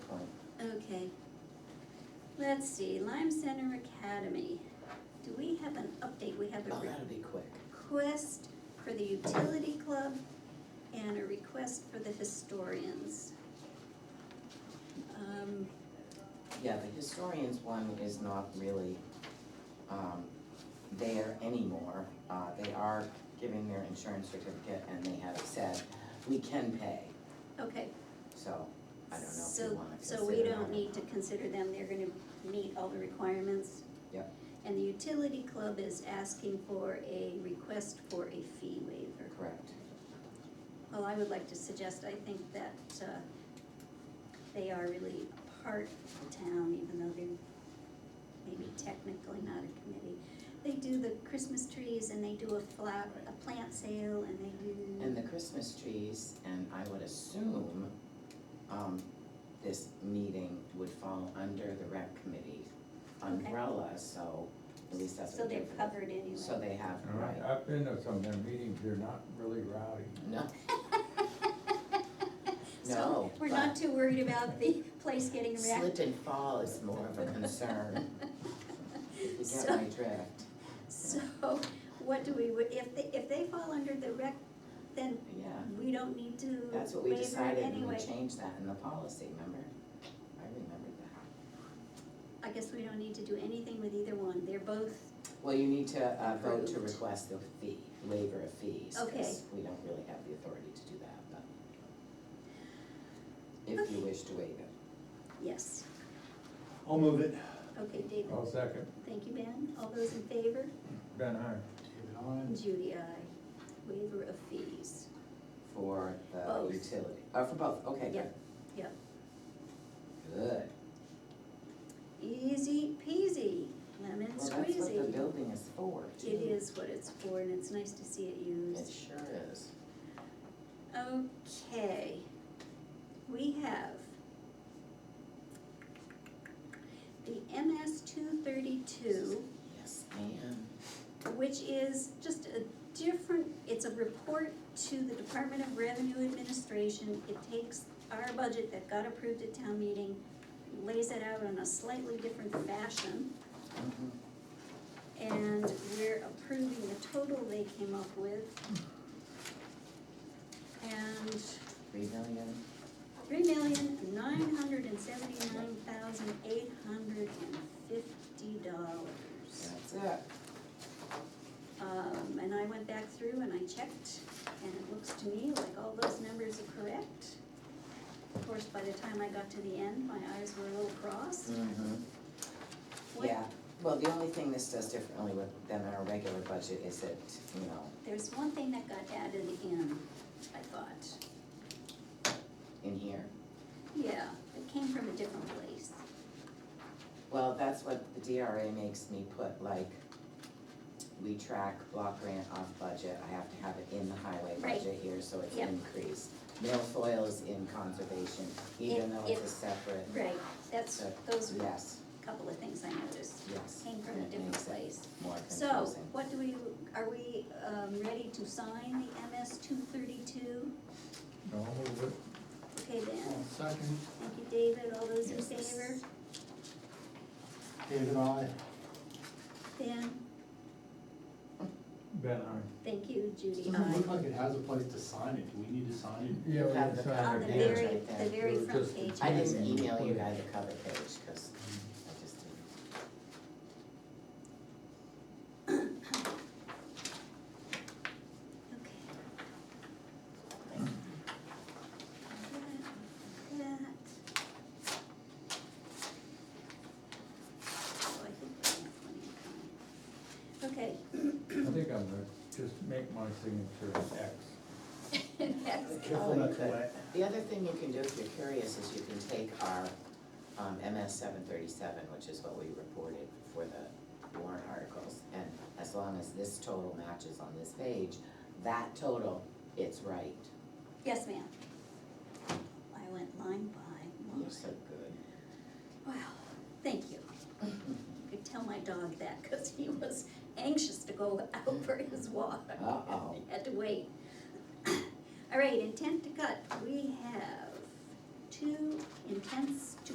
Oh, Okay. Let's see, Lime Center Academy. Do we have an update? We have a Oh, that'll be quick. request for the utility club and a request for the historians. Um, Yeah, the historians one is not really, um, there anymore. Uh, they are giving their insurance certificate and they have said, we can pay, okay, so I don't know if so, you wanna consider so we that or don't need not. to consider them, they're gonna meet all the requirements? Yep. And the utility club is asking for a request for a fee waiver. Correct. Well, I would like to suggest, I think that uh, they are really a part of the town, even though they're maybe technically not a committee. They do the Christmas trees and they do a flower, a plant sale and they And do, the Christmas trees, and I would assume, um, this meeting would fall under the rec committee Okay. umbrella, so at least that's so what they're they're. covered anyway. So they have, All right, right, I've been to some of their meetings, they're not really rowdy. no, So No, we're not too worried about the place getting slip wrecked. and fall is more of a concern, you get So- my drift, So what do we, if they, if they fall under the rec, then yeah. we don't need to waiver it anyway. That's what we decided, and we changed that in the policy, remember? I remember that. I guess we don't need to do anything with either one, they're both, Well, you need to, uh, vote to Approved. request the fee, waiver of fees, Okay. because we don't really have the authority to do that, but. If you Okay. wish to waive it. yes, I'll move it. okay, David, I'll second, thank you, Ben, all those in favor? Ben, aye. David, aye. Judy, I, waiver of fees, For the Both. utility, uh, for both, okay, good. Yep, yep. Good. easy peasy, lemon Well, that's what the squeezy. building is for, too. It is what it's for, and it's nice to see it It used. sure is. Okay, we have the MS two thirty-two. Yes, ma'am. which is just a different, it's a report to the Department of Revenue Administration. It takes our budget that got approved at town meeting, lays it out in a slightly different fashion, Mhm. and we're approving the total they came up with. And Three million, three million, nine hundred and seventy-nine thousand, eight hundred and fifty dollars. that's it. Um, and I went back through and I checked, and it looks to me like all those numbers are correct. Of course, by the time I got to the end, my eyes were a little crossed. Mhm. What- Yeah, well, the only thing this does differently with, than our regular budget is it, you know, There's one thing that got added in, I thought. in here. Yeah, it came from a different place. Well, that's what the DRA makes me put, like, we track block grant off budget, I have to have it in the highway Right. budget here, so it's Yep. increased. Milfoil is in conservation, even It- though it's a it's- separate, Right, that's, those were a yes, couple of things I noticed, yes, came from a It different makes it- place. more So, confusing. what do we, are we, um, ready to sign the MS two thirty-two? No, I'll move it. Okay, Ben, I'll Second, thank you, David, all those in Yes. favor? David, aye. Ben? Ben, aye. Thank you, Judy. Um, Doesn't it look I, like it has a place to sign it, do we need to sign it? Yeah, we Have can the sign on copy. the it. Yeah, very, right there. the very It was front just- page. I has didn't it. email you guys the cover page, cause I just didn't. Okay. That, that. Oh, I think we have plenty of time. Okay. I think I'm gonna just make my signature an X. That's- Careful not to wet. The other thing you can do if you're curious is you can take our um, MS seven thirty-seven, which is what we reported for the warrant articles. And as long as this total matches on this page, that total, it's right. Yes, ma'am. I went line by You're line. so good. Wow, thank you. I could tell my dog that because he was anxious to go out for his walk. Uh-oh. Had to wait. All right, intent to cut, we have two intents